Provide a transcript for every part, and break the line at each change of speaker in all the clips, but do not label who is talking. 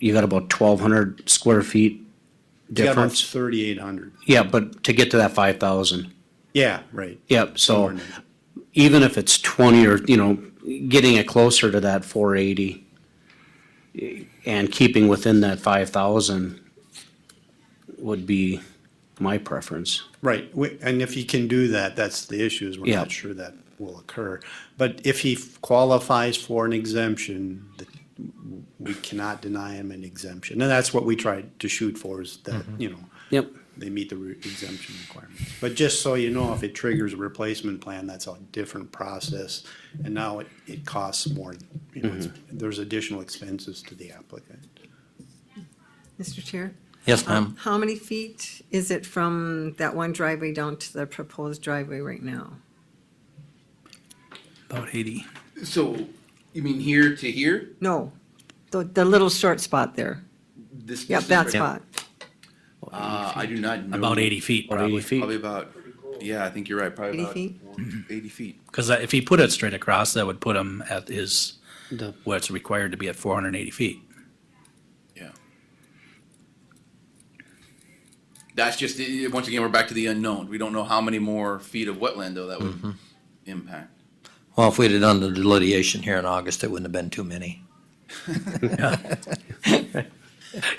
you got about twelve hundred square feet
You got about
difference.
thirty-eight hundred.
Yeah, but to get to that five thousand,
Yeah, right.
yep,
Somewhere
so
in there.
even if it's twenty or, you know, getting it closer to that four eighty and keeping within that five thousand would be my preference.
Right, We- and if he can do that, that's the issue, is we're
Yeah.
not sure that will occur. But if he qualifies for an exemption, th- we cannot deny him an exemption. And that's what we tried to shoot for, is that, you know,
Mm-hmm. Yep,
they meet the re- exemption requirements. But just so you know, if it triggers a replacement plan, that's a different process. And now it, it costs more, you know, it's-
Mm-hmm.
there's additional expenses to the applicant.
Mr. Chair, Um,
Yes, ma'am.
how many feet is it from that one driveway down to the proposed driveway right now?
About eighty.
So, you mean here to here?
No, the, the little short spot there.
This.
Yep,
this
that
is-
spot.
Uh, I do not know.
About eighty feet,
or eighty
probably.
feet.
Probably about, yeah, I think you're right, probably
80
about.
feet?
Eighty feet.
Because uh, if he put it straight across, that would put him at his,
The-
where it's required to be at four hundred and eighty feet.
Yeah. That's just, i- i- once again, we're back to the unknown. We don't know how many more feet of wetland though that
Mm-hmm.
would impact.
Well, if we'd have done the delineation here in August, it wouldn't have been too many.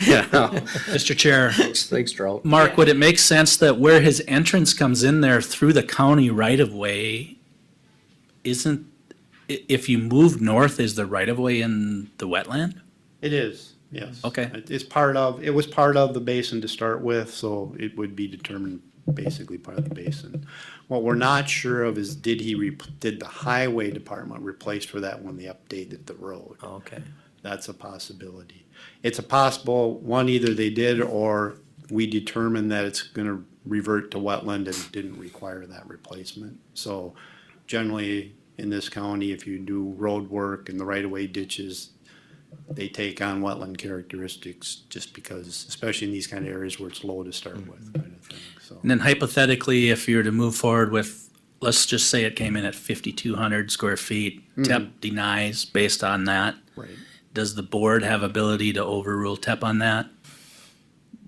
Yeah,
Mr. Chair,
thanks, Charles.
Mark, would it make sense that where his entrance comes in there through the county right of way, isn't, i- if you move north, is the right of way in the wetland?
It is, yes.
Okay.
It- It's part of, it was part of the basin to start with, so it would be determined basically part of the basin. What we're not sure of is did he, rep- did the highway department replace for that when they updated the road?
Okay.
That's a possibility. It's a possible, one, either they did or we determined that it's gonna revert to wetland and didn't require that replacement. So generally, in this county, if you do road work and the right-of-way ditches, they take on wetland characteristics just because, especially in these kind of areas where it's low to start with, kind of thing, so.
And then hypothetically, if you were to move forward with, let's just say it came in at fifty-two hundred square feet,
Mm-hmm.
TEP denies based on that.
Right.
Does the board have ability to overrule TEP on that?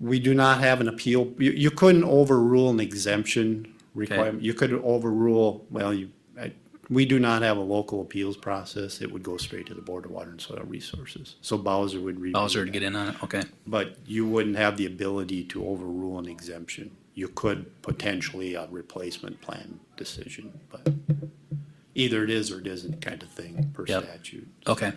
We do not have an appeal, you, you couldn't overrule an exemption requirement, you could overrule, well, you, I, we do not have a local appeals process, it would go straight to the Board of Water and Soil Resources, so Bowser would review.
Bowser to
that.
get in on it, okay.
But you wouldn't have the ability to overrule an exemption, you could potentially a replacement plan decision, but either it is or it isn't kind of thing per
Yep.
statute.
Okay.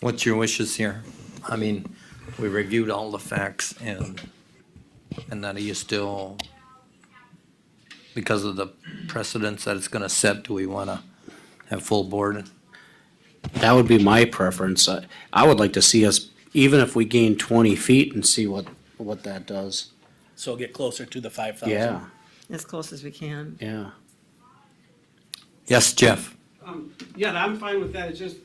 What's your wishes here? I mean, we reviewed all the facts and, and then are you still, because of the precedents that it's gonna set, do we wanna have full board?
That would be my preference. I, I would like to see us, even if we gain twenty feet and see what, what that does.
So get closer to the five thousand.
Yeah,
As close as we can.
yeah.
Yes, Jeff?
Um, yeah, I'm fine with that, it's just,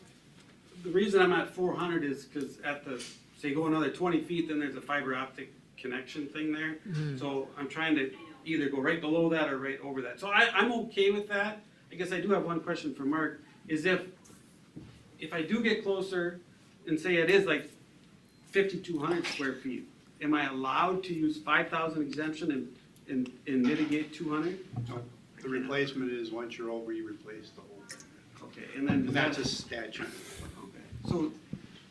the reason I'm at four hundred is because at the, say go another twenty feet, then there's a fiber optic connection thing there. So I'm trying to either go right below that or right over that, so I, I'm okay with that. I guess I do have one question for Mark, is if, if I do get closer and say it is like fifty-two hundred square feet, am I allowed to use five thousand exemption and, and, and mitigate two hundred?
The replacement is once you're over, you replace the whole,
Okay, and then.
and that's a statute.
So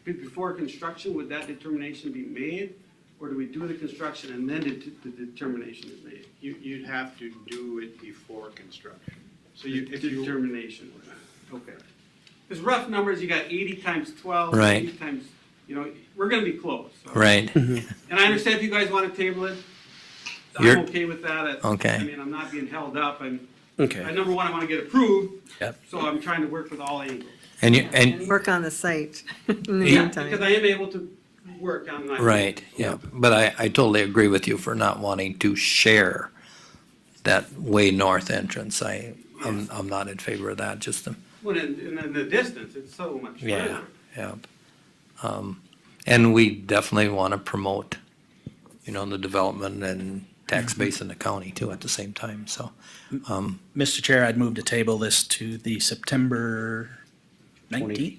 be- before construction, would that determination be made? Or do we do the construction and then det- the determination is made?
You, you'd have to do it before construction. So you, if you,
Determination, okay. Because rough numbers, you got eighty times 12,
Right.
80 times, you know, we're gonna be close. so.
Right,
And I understand if you guys want to table it, I'm
You're-
okay with that. I-
Okay.
I mean, I'm not being held up and, I-
Okay.
number one, I want to get approved.
Yep.
So I'm trying to work with all angles.
and you,
And
and,
work on the site in the
Yeah,
meantime.
Because I am able to work on my.
right, yeah, but I, I totally agree with you for not wanting to share that way north entrance. I, I'm, I'm not in favor of that, just to
Well, and, and then the distance, it's so much
Yeah,
further.
yeah. Um, And we definitely want to promote, you know, the development and tax base in the county too at the same time, so.
Mr. Chair, I'd move to table this to the September nineteenth?